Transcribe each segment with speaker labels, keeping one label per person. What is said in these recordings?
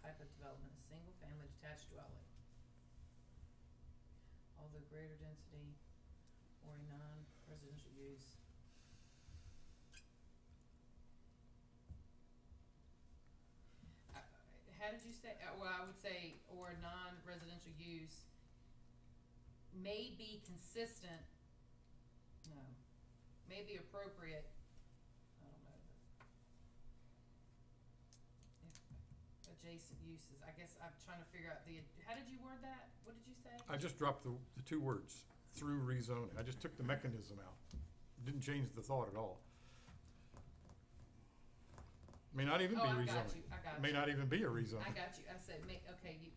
Speaker 1: type of development, a single-family detached dwelling. Of the greater density or a non-residential use. Uh, How did you say, uh, well, I would say, or a non-residential use may be consistent, no, may be appropriate, I don't know, the- if adjacent uses, I guess I'm trying to figure out the, how did you word that? What did you say?
Speaker 2: I just dropped the, the two words, through rezoning. I just took the mechanism out. Didn't change the thought at all. May not even
Speaker 1: Oh,
Speaker 2: be
Speaker 1: I got
Speaker 2: rezoning.
Speaker 1: you, I got you.
Speaker 2: May not even be a rezoning.
Speaker 1: I got you, I said ma- okay, you,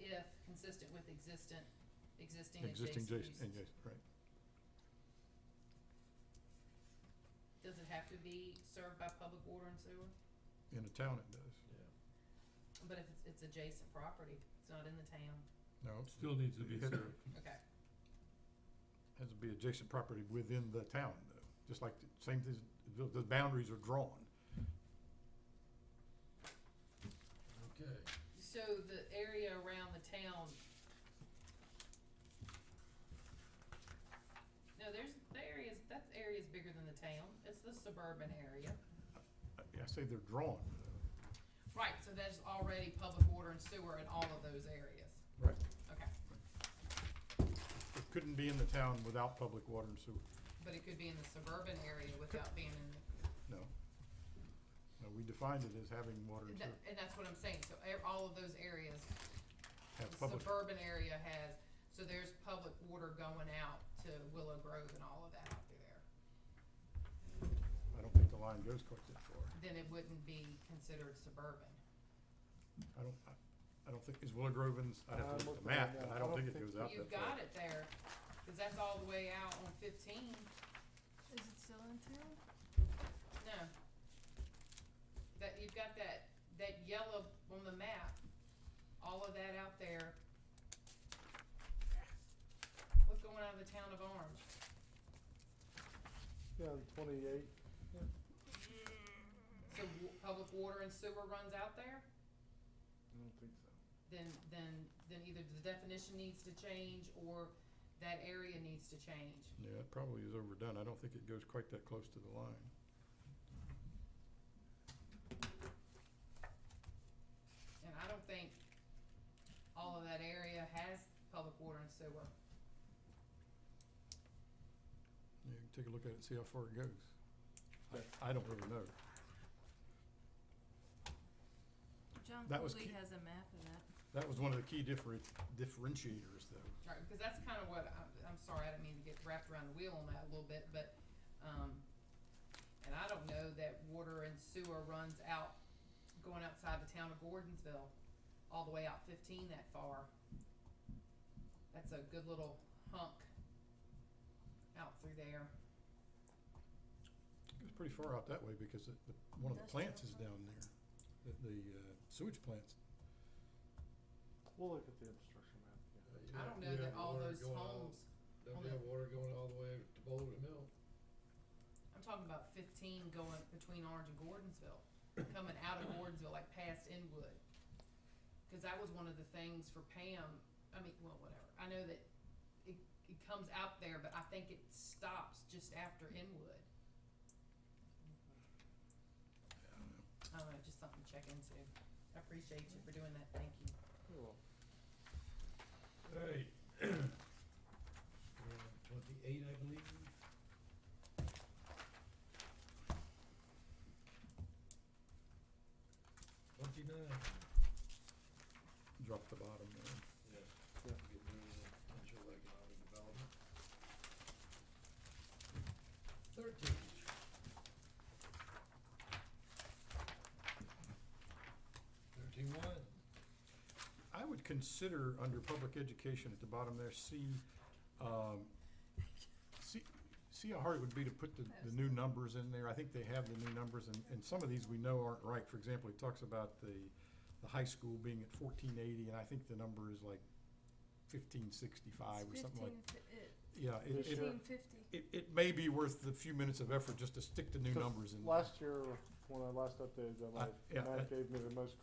Speaker 1: if consistent with existent, existing
Speaker 2: Existing
Speaker 1: adjacent
Speaker 2: adjacent,
Speaker 1: uses.
Speaker 2: adjacent, right.
Speaker 1: Does it have to be served by public water and sewer?
Speaker 2: In a town it does.
Speaker 1: But if it's, it's adjacent property, it's not in the town,
Speaker 2: No, it
Speaker 3: Still needs to be
Speaker 2: Yeah.
Speaker 3: served.
Speaker 1: okay,
Speaker 2: has to be adjacent property within the town though. Just like the same, thing. the, the boundaries are drawn.
Speaker 4: Okay,
Speaker 1: so the area around the town. No, there's, the area's, that area's bigger than the town, it's the suburban area.
Speaker 2: I- I say they're drawn though.
Speaker 1: Right, so there's already public water and sewer in all of those areas,
Speaker 2: Right.
Speaker 1: okay,
Speaker 2: It couldn't be in the town without public water and sewer.
Speaker 1: but it could be in the suburban area without being in the
Speaker 2: No. No, we defined it as having water
Speaker 1: And
Speaker 2: and
Speaker 1: that-
Speaker 2: sewer,
Speaker 1: And that's what I'm saying, so e- all of those areas,
Speaker 2: have
Speaker 1: the
Speaker 2: public
Speaker 1: suburban area has, so there's public water going out to Willow Grove and all of that out through there.
Speaker 2: I don't think the line goes quite that far.
Speaker 1: Then it wouldn't be considered suburban.
Speaker 2: I don't, I, I don't think, is Willow Grove in, I'd have to look at the
Speaker 5: I'm looking at
Speaker 2: map,
Speaker 5: that.
Speaker 2: but I don't think it goes out
Speaker 1: You've
Speaker 2: that far.
Speaker 1: got it there, cause that's all the way out on fifteen,
Speaker 6: Is it still in town?
Speaker 1: no. That, you've got that, that yellow on the map, all of that out there. What's going on in the town of Orange?
Speaker 5: Yeah, the twenty-eight,
Speaker 1: So w- public water and sewer runs out there?
Speaker 5: I don't think so.
Speaker 1: then, then, then either the definition needs to change or that area needs to change.
Speaker 2: Yeah, it probably is overdone. I don't think it goes quite that close to the line.
Speaker 1: And I don't think all of that area has public water and sewer.
Speaker 2: You can take a look at it and see how far it goes. I, I don't really know.
Speaker 6: John
Speaker 2: That was
Speaker 6: Cooley
Speaker 2: ki-
Speaker 6: has a map of that.
Speaker 2: That was one of the key different, differentiators though.
Speaker 1: Right, because that's kind of what, I'm, I'm sorry, I didn't mean to get wrapped around the wheel on that a little bit, but, um, and I don't know that water and sewer runs out, going outside the town of Gordonsville, all the way out fifteen that far. That's a good little hunk out through there.
Speaker 2: It's pretty far out that way because it, the, one of the
Speaker 6: Industrial
Speaker 2: plants is
Speaker 6: plant.
Speaker 2: down there, the, the uh, sewage plants.
Speaker 5: We'll look at the obstruction map,
Speaker 4: Uh,
Speaker 5: yeah.
Speaker 1: I don't know that all those homes,
Speaker 4: Don't we have water going all the way to Boulder Mill?
Speaker 1: I'm talking about fifteen going between Orange and Gordonsville, coming out of Gordonsville, like past Inwood. Cause that was one of the things for Pam, I mean, well, whatever, I know that it, it comes out there, but I think it stops just after Inwood. I don't know, just something to check into, I appreciate you for doing that, thank you.
Speaker 5: You're welcome.
Speaker 4: Hey. Uh, Twenty-eight, I believe. Twenty-nine.
Speaker 2: Drop the bottom there.
Speaker 4: Yes. Get rid of the potential economic development. Thirteen. Thirteen-one.
Speaker 2: I would consider under public education at the bottom there, see, um, see, see how hard it would be to put the, the new numbers in there. I think they have the new numbers and, and some of these we know aren't right. For example, he talks about the, the high school being at fourteen eighty and I think the number is like fifteen sixty-five or
Speaker 6: It's
Speaker 2: something like.
Speaker 6: fifteen fi- it-
Speaker 2: Yeah, it,
Speaker 5: This year.
Speaker 2: it,
Speaker 6: fifteen
Speaker 2: it,
Speaker 6: fifty.
Speaker 2: it may be worth the few minutes of effort just to stick the new numbers in. there.
Speaker 5: Last year, when I last updated that,
Speaker 2: Uh, yeah,
Speaker 5: my, Matt
Speaker 2: that-
Speaker 5: gave me the most